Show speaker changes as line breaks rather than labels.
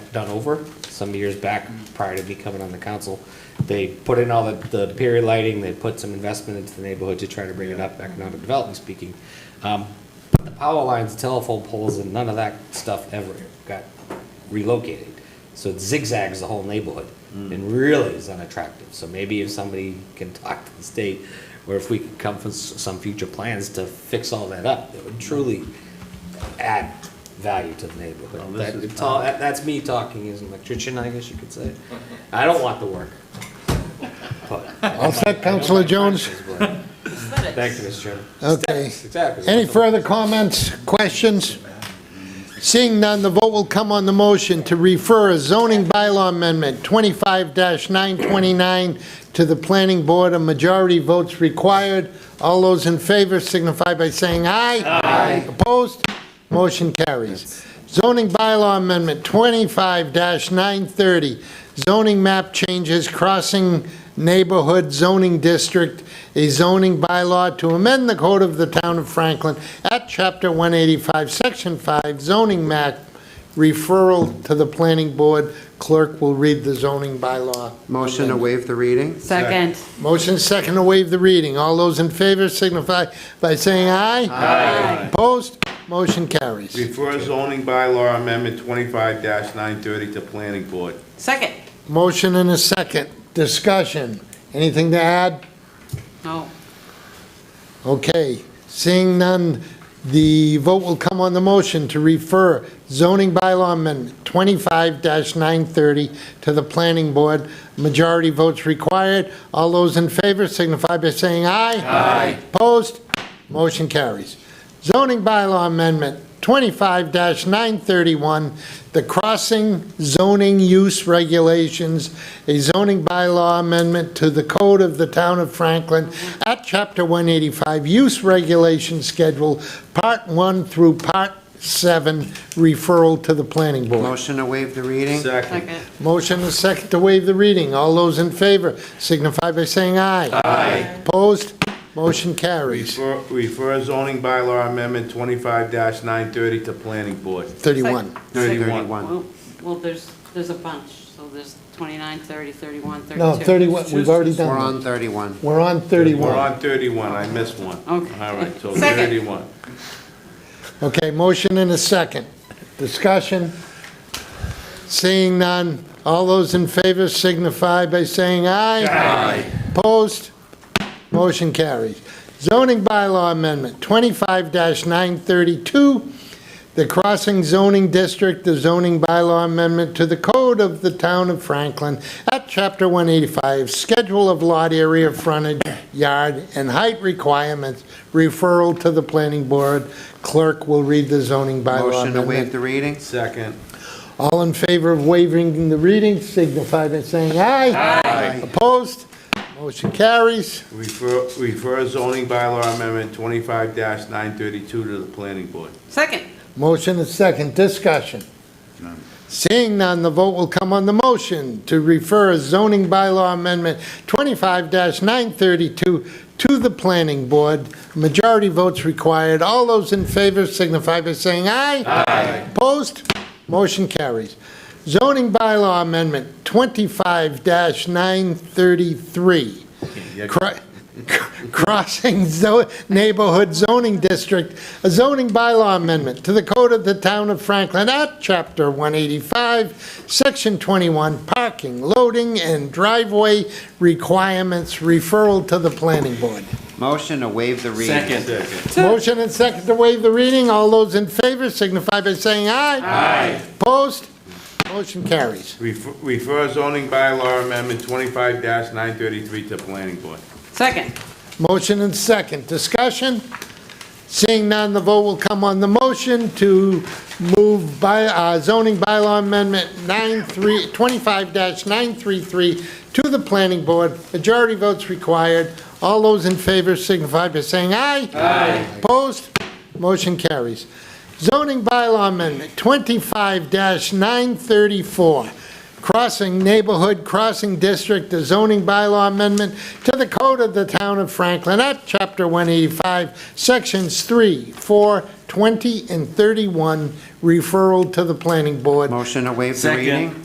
done over some years back prior to me coming on the council. They put in all the, the period lighting, they put some investment into the neighborhood to try to bring it up, economic development speaking. Um, but the power lines, telephone poles, and none of that stuff ever got relocated. So it zigzags the whole neighborhood and really is unattractive. So maybe if somebody can talk to the state, or if we could come for s- some future plans to fix all that up, it would truly add value to the neighborhood.
Well, this
That-
is
it's all- that- That's me talking as an electrician, I guess you could say. I don't want the work.
All set, Counselor Jones?
Thank you, Mr. Chairman.
Okay.
Exactly.
Any further comments, questions? Seeing none, the vote will come on the motion to refer a zoning bylaw amendment 25-929 to the planning board. A majority votes required. All those in favor signify by saying aye. Aye. Opposed? Motion carries. Zoning bylaw amendment 25-930, zoning map changes crossing neighborhood zoning district, a zoning bylaw to amend the code of the town of Franklin at chapter 185, section 5, zoning map, referral to the planning board. Clerk will read the zoning bylaw.
Motion to waive the reading?
Second.
Motion second to waive the reading. All those in favor signify by saying aye. Aye. Opposed? Motion carries.
Refer zoning bylaw amendment twenty-five nine thirty to planning board.
Second.
Motion and a second. Discussion. Anything to add?
No.
Okay. Seeing none, the vote will come on the motion to refer zoning bylaw amendment 25-930 to the planning board. Majority votes required. All those in favor signify by saying aye. Aye. Opposed? Motion carries. Zoning bylaw amendment 25-931, the crossing zoning use regulations, a zoning bylaw amendment to the code of the town of Franklin at chapter 185, use regulation schedule, part 1 through part 7, referral to the planning board.
Motion to waive the reading?
Second.
Second.
Motion is second to waive the reading. All those in favor signify by saying aye. Aye. Opposed? Motion carries.
Refer refer zoning bylaw amendment twenty-five nine thirty to planning board.
31.
Thirty,
Second.
thirty-one.
Well- Well, there's, there's a bunch, so there's 29, 30, 31, 32.
No, 31, we've already
We're
done
on 31.
that. We're on
We're
31.
on thirty-one, I missed one.
Okay.
All right, so
Second.
thirty-one.
Okay, motion and a second. Discussion? Seeing none, all those in favor signify by saying aye. Aye. Opposed? Motion carries. Zoning bylaw amendment 25-932, the crossing zoning district, the zoning bylaw amendment to the code of the town of Franklin at Chapter 185, schedule of lot area, frontage, yard, and height requirements, referral to the planning board. Clerk will read the zoning bylaw
Motion to waive
amendment.
the reading?
Second.
All in favor of waiving the reading signify by saying aye. Aye. Opposed? Motion carries.
Refer, refer zoning bylaw amendment twenty-five nine thirty-two to the planning board.
Second.
Motion is second, discussion. Seeing none, the vote will come on the motion to refer a zoning bylaw amendment 25-932 to the planning board. Majority votes required. All those in favor signify by saying aye. Aye. Opposed? Motion carries. Zoning bylaw amendment 25-933. Cro- Crossing zo- Neighborhood Zoning District, a zoning bylaw amendment to the code of the town of Franklin at Chapter 185, Section 21, parking, loading, and driveway requirements, referral to the planning board.
Motion to waive the reading?
Second.
Motion and second to waive the reading. All those in favor signify by saying aye. Aye. Opposed? Motion carries.
Refer, refer zoning bylaw amendment twenty-five nine thirty-three to planning board.
Second.
Motion and second. Discussion? Seeing none, the vote will come on the motion to move by, uh, zoning bylaw amendment 93, 25-933 to the planning board. Majority votes required. All those in favor signify by saying aye. Aye. Opposed? Motion carries. Zoning bylaw amendment 25-934, Crossing Neighborhood Crossing District, a zoning bylaw amendment to the code of the town of Franklin at Chapter 185, Sections 3, 4, 20, and 31, referral to the planning board.
Motion to waive the
Second.
reading?